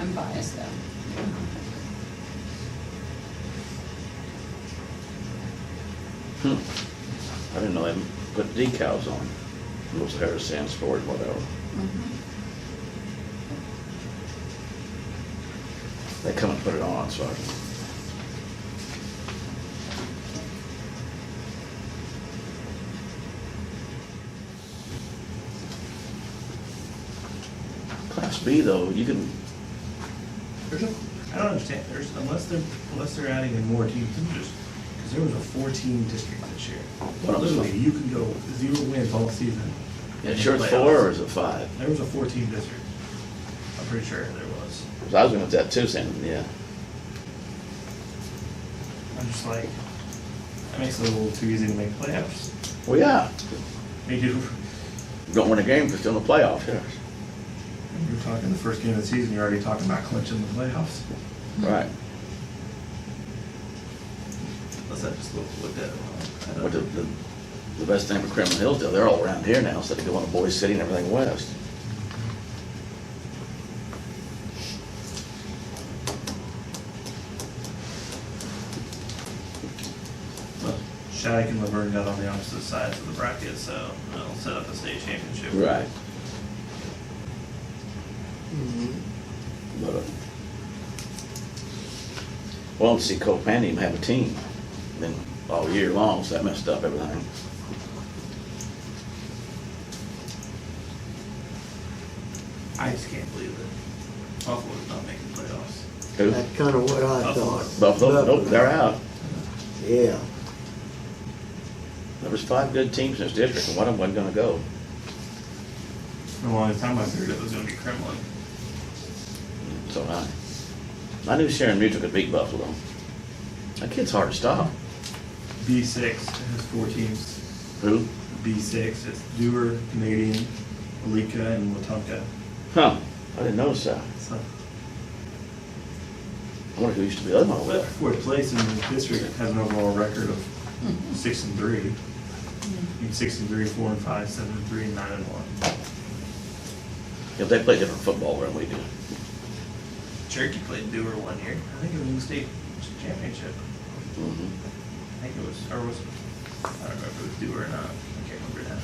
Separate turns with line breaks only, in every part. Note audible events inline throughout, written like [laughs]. I'm biased though.
I didn't know they put decals on. Those Harris Sand Sport, whatever. Mm-hmm. They come and put it on, so I, Class B though, you can,
There's a, I don't understand, there's, unless they're, unless they're adding in more teams than just, because there was a four-team district this year.
What else?
Literally, you could go zero wins all season.
it's yours four or is it five?
There was a four-team district. I'm pretty sure there was.
'Cause I was gonna do that too, Sam, yeah.
I'm just like, that makes it a little too easy to make playoffs.
Well, yeah,
They do,
don't win a game, but still in the playoffs, yes.
you're talking the first game of the season, you're already talking about clinching the playoffs.
Right,
Unless I just looked, looked at it wrong. I
but the,
don't-
the, the best thing for Criminal Hillsdale, they're all around here now, instead of going to Boise City and everything west.
Well, Shattuck and Laverne got on the opposite sides of the bracket, so it'll set up a state championship.
Right. But, uh, well, to see Copan even have a team, then all year long, so that messed up everything.
I just can't believe that Buffalo's not making playoffs.
Who?
That's kind of what I
Buffalo.
thought.
Buffalo, nope, they're out.
Yeah,
There was five good teams in this district, and one of them wasn't gonna go.
For a long time, I figured it was gonna be Kremlin.
So I, I knew Sharon Mutual could beat Buffalo. That kid's hard to stop.
B six has four teams.
Who?
B six is Dewar, Canadian, Alika, and Watonka.
Huh, I didn't notice that.
So,
I wonder who used to be the other one over
but
there.
fourth place in the district has an overall record of six and three. I mean, six and three, four and five, seven and three, and nine and one.
If they play different football than we do.
Cherokee played Dewar one year. I think it was in the state championship.
Mhm.
I think it was, or was, I don't remember if it was Dewar or not. I can't remember now.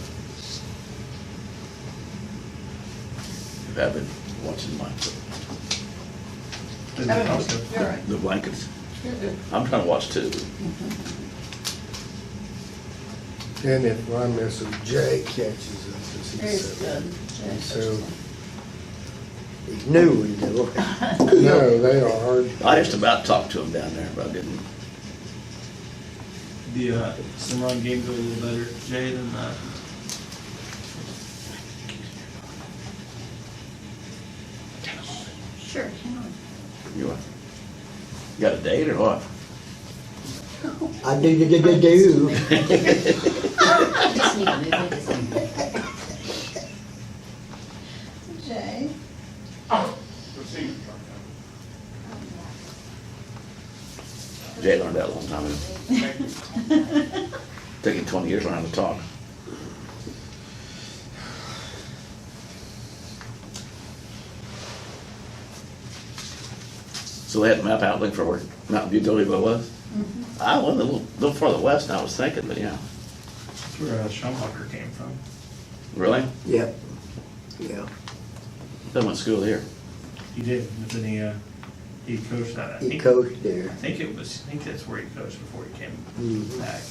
If I've been watching my,
Doesn't
Oh,
matter.
You're all right.
the blankets.
You're good.
I'm trying to watch two.
And if I miss him, Jay catches us as he
He's
said.
good. Jack's
So-
he's new and though.
[laughs] No, they are hard.
I just about talked to him down there, but I didn't.
The uh, Cimarron game go a little better, Jay, than uh,
excellent. Sure, hang on.
You uh, you got a date or what?
I do, do, do, do, do.
I just need to move it. [laughs] Jay?
Jay learned that a long time ago. Took him twenty years to learn how to talk. So they had a map out looking for where Mountain View Gullyville was? I went a little, little farther west than I was thinking, but yeah.
that's where uh, Schumacher came from.
Really?
Yep, yeah.
They went to school here.
He did, but then he, uh, he coached that. I
He
think,
coached
I
there.
think it was, I think that's where he coached before he came
Mhm.
back.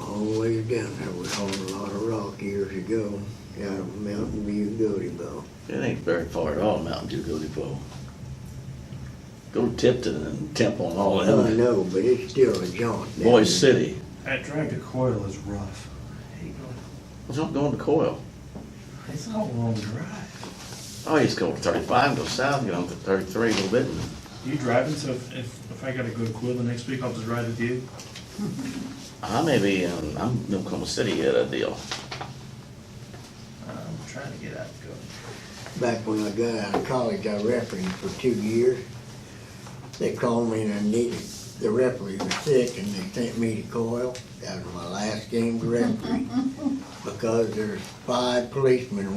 All the way down there, we hauled a lot of rock years ago, out of Mountain View, Gullyville.
It ain't very far at all, Mountain Dew Go Depot. Go to Tipton and Temple and all
Oh, I
that.
know, but it's still a jaunt. down
Boise
there.
City.
That drive to Coyle is rough. I hate going-
What's up going to Coyle?
It's not a long drive.
Oh, you just go to thirty-five, go south, and get on to thirty-three a little bit. and-
You driving, so if, if if I gotta go to Coyle the next week, I'll just ride with you.
I may be in, I'm in Oklahoma City yet, a deal.
Uh, I'm trying to get out to go.
Back when I got out of college, I refereed for two years. They called me and I needed, the referee was sick and they sent me to Coyle. That was my last game to referee. Because there's five policemen